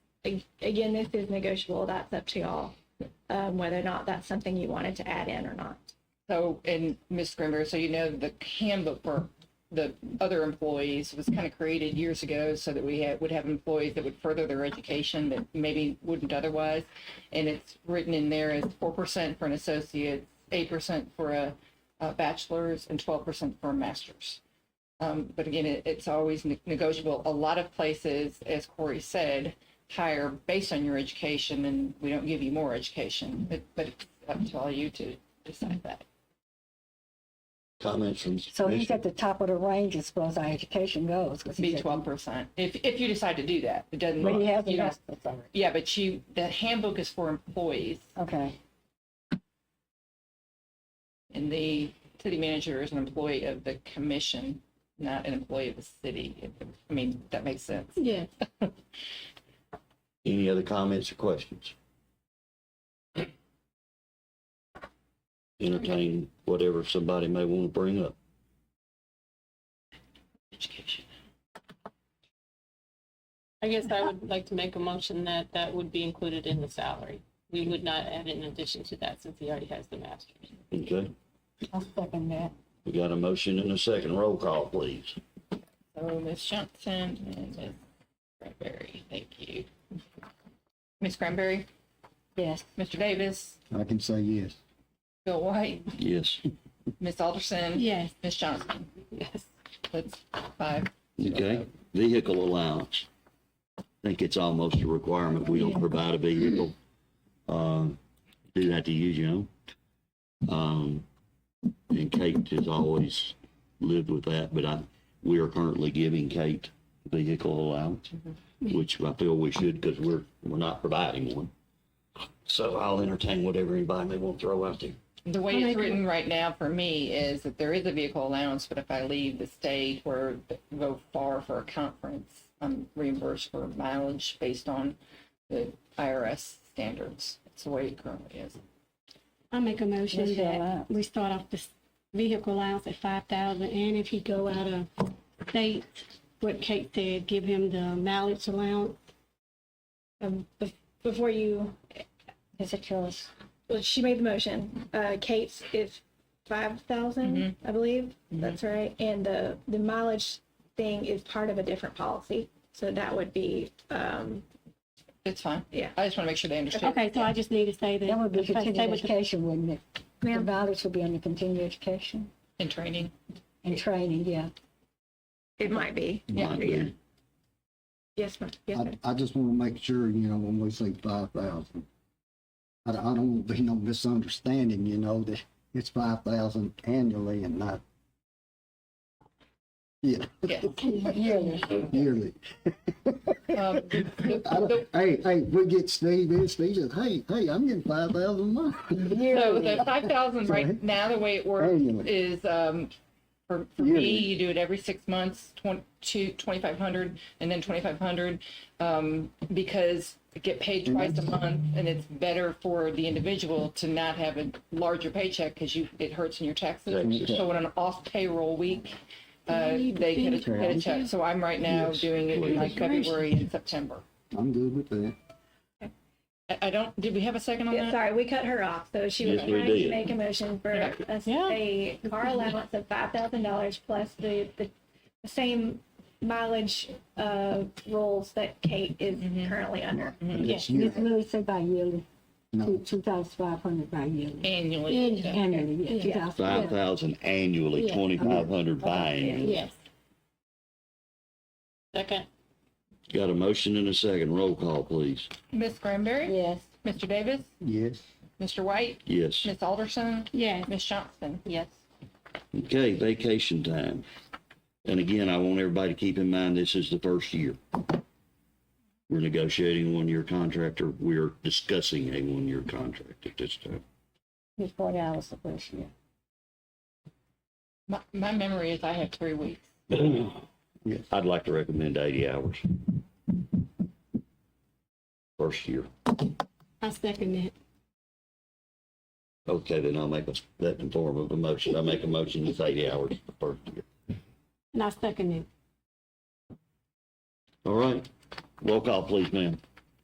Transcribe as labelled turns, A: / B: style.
A: ag- again, this is negotiable. That's up to y'all, um, whether or not that's something you wanted to add in or not.
B: So, and Ms. Grimber, so you know, the handbook for the other employees was kind of created years ago so that we had, would have employees that would further their education that maybe wouldn't otherwise. And it's written in there as four percent for an associate, eight percent for a, a bachelor's, and twelve percent for a master's. Um, but again, it, it's always ne- negotiable. A lot of places, as Corey said, hire based on your education, and we don't give you more education. But, but it's up to all you to decide that.
C: Comments from.
D: So he's
C: commission?
D: at the top of the range as far as our education goes. 'cause
B: Be
D: he's at-
B: twelve percent, if, if you decide to do that, it doesn't.
D: But he
B: you
D: hasn't
B: don't-
D: asked for salary.
B: Yeah, but you, the handbook is for employees,
D: Okay,
B: and the city manager is an employee of the commission, not an employee of the city. If- I mean, that makes sense.
A: Yeah.
C: Any other comments or questions? Entertain whatever somebody may want to bring up.
B: Education.
E: I guess I would like to make a motion that that would be included in the salary. We would not add it in addition to that since he already has the master's.
C: Okay,
D: I'll second that.
C: we got a motion and a second. Roll call, please.
B: So Ms. Johnson and Ms. Cranberry, thank you. Ms. Cranberry,
D: Yes,
B: Mr. Davis,
F: I can say yes.
B: Bill White,
C: Yes.
B: Ms. Alderson,
A: Yes.
B: Ms. Johnson.
E: Yes.
B: That's five.
C: Okay, Uh, vehicle allowance. I think it's almost a requirement. We don't provide a vehicle. Uh, do that to you, Jim. Um, and Kate has always lived with that, but I, we are currently giving Kate vehicle allowance, which I feel we should because we're, we're not providing one. So I'll entertain whatever anybody may want to throw out there.
B: The way
A: I'll
B: it's
A: make a-
B: written right now for me is that there is a vehicle allowance, but if I leave the state or go far for a conference, I'm reimbursed for mileage based on the IRS standards. That's the way it currently is.
G: I make a motion
D: Yes, you're
G: that
D: allowed.
G: we start off this vehicle allowance at five thousand, and if he go out of state, what Kate said, give him the mileage allowance.
A: Um, bef- before you,
D: it's a choice.
A: well, she made the motion. Uh, Kate's is five
C: Mm-hmm.
A: I believe. That's right. And the the mileage thing is part of a different policy, so that would be um,
B: It's fine.
A: Yeah.
B: I just want to make sure they understand.
G: Okay, so I just need to say that.
D: That would be
G: if I
D: continued
G: stay with the-
D: education, wouldn't it? The
A: Ma'am?
D: mileage would be under continued education
B: In training.
D: and training, yeah.
A: it might be.
C: Might be.
A: Yes, ma'am. Yes, ma'am.
F: I, I just want to make sure, you know, when we say five thousand, I, don't- I don't want to be no misunderstanding, you know, that it's five thousand annually and not yeah,
B: Yes.
D: Yearly.
F: yearly.
B: Um, the- the-
F: I don't- Hey, hey, we get Steve and Steve says, hey, hey, I'm getting five thousand a month.
B: So the five thousand right
F: Sorry.
B: now, the way it works
F: Annually.
B: is, um, for, for me,
F: Yearly.
B: you do it every six months, twenty, two, twenty-five hundred, and then twenty-five hundred. Um, because you get paid twice a month and it's better for the individual to not have a larger paycheck because you, it hurts in your taxes.
C: Taxes.
B: So on an off payroll week, uh, they get a, get a check. So I'm right now doing it in like February and September.
F: I'm good with that.
B: I, I don't, did we have a second on
A: Yeah,
B: that?
A: sorry, we cut her off. So she was
C: Yes, we
A: trying to
C: did.
A: make a motion for us
E: Yeah.
A: a car allowance of five thousand dollars plus the, the same mileage uh, rules that Kate is
E: Mm-hmm.
A: currently under.
D: Ms.
F: It's yearly.
D: Lewis said by yearly,
F: No.
D: two thousand five hundred by yearly.
B: Annually. yeah.
D: Annually, yeah, two thousand.
C: Five thousand annually,
E: Yeah.
C: twenty-five hundred biannually.
E: Yes. Second,
C: Got a motion and a second. Roll call, please.
B: Ms. Granberry,
D: Yes,
B: Mr. Davis,
F: Yes,
B: Mr. White,
C: Yes.
B: Miss Alderson,
G: Yeah,
B: Miss Johnson.
E: yes.
C: Okay, vacation time. And again, I want everybody to keep in mind, this is the first year. We're negotiating a one-year contract, or we're discussing a one-year contract at this time.
D: he's forty hours the first year.
B: My, my memory is I have three weeks.
C: I'd like to recommend eighty hours. First year.
G: I second that.
C: Okay, then I'll make a, that in form of a motion. I make a motion, it's eighty hours the first year.
G: And I second it.
C: All right. Roll call, please, ma'am.